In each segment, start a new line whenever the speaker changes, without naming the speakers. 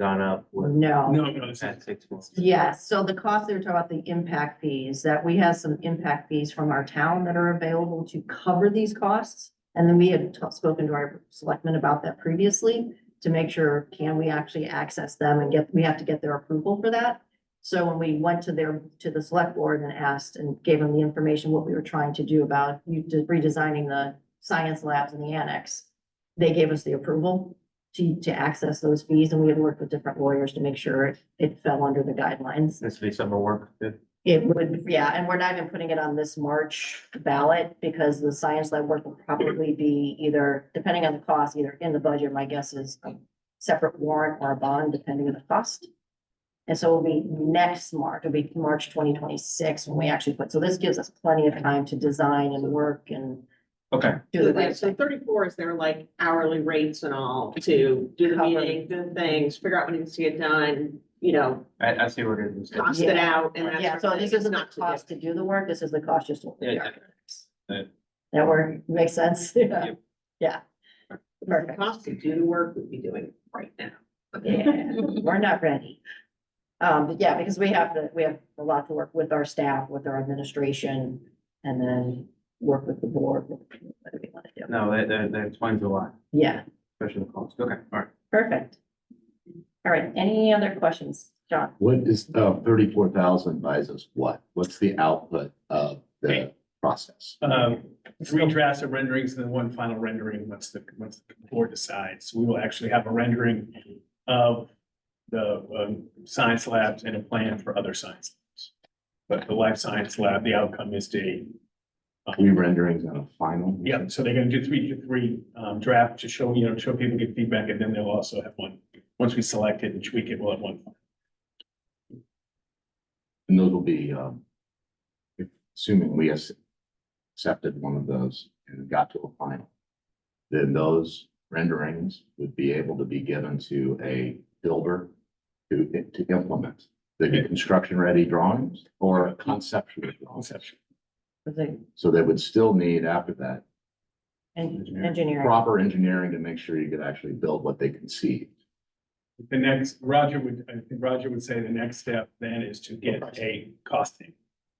gone up with
No,
No, no, it's
that six months.
yes, so the cost they were talking about, the impact fees, that we have some impact fees from our town that are available to cover these costs. And then we had ta- spoken to our selectmen about that previously, to make sure, can we actually access them and get, we have to get their approval for that. So when we went to their, to the select board and asked and gave them the information, what we were trying to do about you de- redesigning the science labs and the annex, they gave us the approval to, to access those fees, and we had worked with different lawyers to make sure it, it fell under the guidelines.
This would be summer work. that-
It would, yeah, and we're not even putting it on this March ballot, because the science lab work will probably be either, depending on the cost, either in the budget, my guess is a separate warrant or a bond, depending on the cost. And so it'll be next March, it'll be March twenty twenty-six when we actually put, so this gives us plenty of time to design and work and
Okay,
do the
Yeah,
right
So
thing.
thirty-four is their like hourly rates and all to do the
Cover.
meetings and things, figure out what needs to get done, you know,
I, I see what it is.
cost it
Yeah.
out and that
Yeah,
sort
so
of
this
thing. It's
isn't the
not to
cost to do the work, this is the cost just. to-
Yeah, yeah. Yeah.
That work, makes sense? Yeah.
Yep.
Yeah.
do- The
Perfect.
cost to do the work we'd be doing right now.
Yeah, we're not ready. Um, but yeah, because we have the, we have a lot to work with our staff, with our administration, and then work with the board. what do we wanna do?
No, that, that, that explains a lot,
Yeah,
especially the cost. Okay, all right.
perfect. All right, any other questions, John?
What is, uh, thirty-four thousand buys us what? What's the output of the process?
um, three drafts of renderings and then one final rendering once the, once the board decides. We will actually have a rendering of the, um, science labs and a plan for other science. labs. But the life science lab, the outcome is to,
Three renderings on a final?
yeah, so they're gonna do three, three, um, draft to show, you know, show people get feedback and then they'll also have one. Once we select it and tweak it, we'll have one.
And those will be, um, assuming we ac- accepted one of those and got to a final, then those renderings would be able to be given to a builder to, to implement. They'd be construction-ready drawings or conceptual drawings.
Conception.
The
So they would still need after that
en- engineering,
proper engineering to make sure you could actually build what they conceived.
The next, Roger would, I think Roger would say the next step then is to get a costing.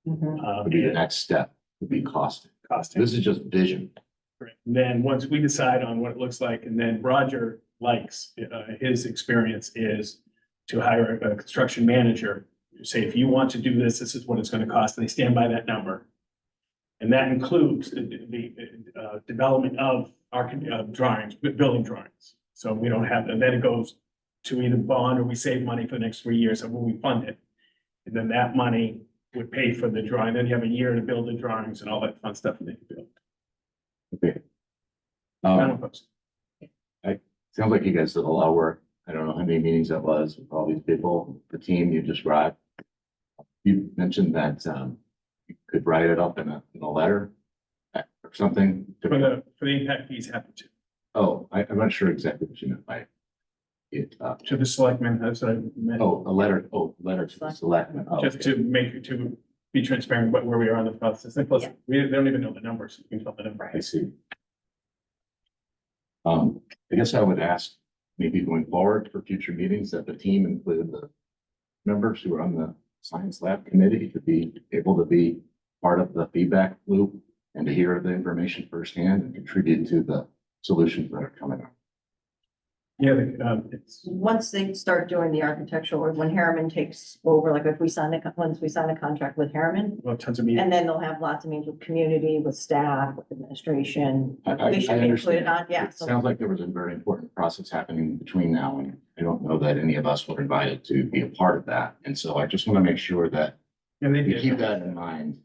Mhm.
um,
would be the next step, would be costing.
Costing.
This is just vision.
Correct. And Then, once we decide on what it looks like, and then Roger likes, uh, his experience is to hire a construction manager, say, if you want to do this, this is what it's gonna cost, and they stand by that number. And that includes the, the, uh, development of our, uh, drawings, bu- building drawings. So we don't have, and then it goes to either bond or we save money for the next three years, and when we fund it. And then that money would pay for the drawing, then you have a year to build the drawings and all that fun stuff that you build. Kind
Um,
of post.
sounds like you guys did a lot of work. I don't know how many meetings that was with all these people, the team you described. You mentioned that, um, you could write it up in a, in a letter uh, or something. to-
For the, for the impact fees happen to,
Oh, I, I'm not sure exactly what you meant by it. Uh,
to the selectmen, that's what I meant,
oh, a letter, oh, letter to the selectmen. Oh,
just to make, to be transparent about where we are in the process, and plus, we, they don't even know the numbers, you can tell the number.
I see. Um, I guess I would ask, maybe going forward for future meetings, that the team include the members who are on the science lab committee to be able to be part of the feedback loop and to hear the information firsthand and contribute to the solutions that are coming up.
Yeah, the, um, it's,
Once they start doing the architectural, or when Harriman takes over, like if we sign a, co- once we sign a contract with Harriman,
well, tons of meetings,
And then they'll have lots of meetings with community, with staff, with administration.
I- I-
We should
I
include
understand.
it on, yeah,
It
so,
sounds like there was a very important process happening between now and I don't know that any of us were invited to be a part of that. And so I just want to make sure that
and they
we keep
did,
that in mind,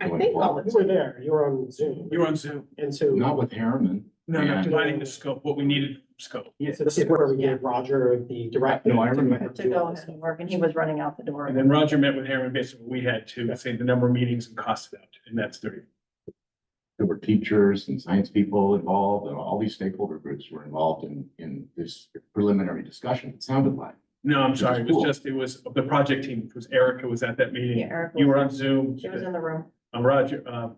I think all
You
the
were there, you were on Zoom,
you're on Zoom,
and so,
not with Harriman.
no, no,
Yeah.
defining the scope, what we needed scope.
so this is where we gave Roger the directive.
No, I remember.
to go ahead and work, and he was running out the door.
And then Roger met with Aaron, basically, we had to say the number of meetings and cost it out, and that's thirty.
there were teachers and science people involved, and all these stakeholder groups were involved in, in this preliminary discussion, it sounded like.
No, I'm sorry, it was just, it was the project team, it was Erica was at that
Yeah,
meeting,
Eric,
you were
was-
on Zoom,
she was in the room.
uh, Roger, uh,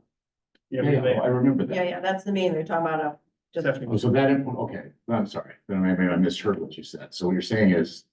yeah, we
Yeah,
were there.
I remember
Yeah,
that.
yeah, that's the meeting they're talking about, a Just-
Stephanie
Oh,
was
So that, okay, I'm sorry, then maybe I misheard what you said. So what you're saying is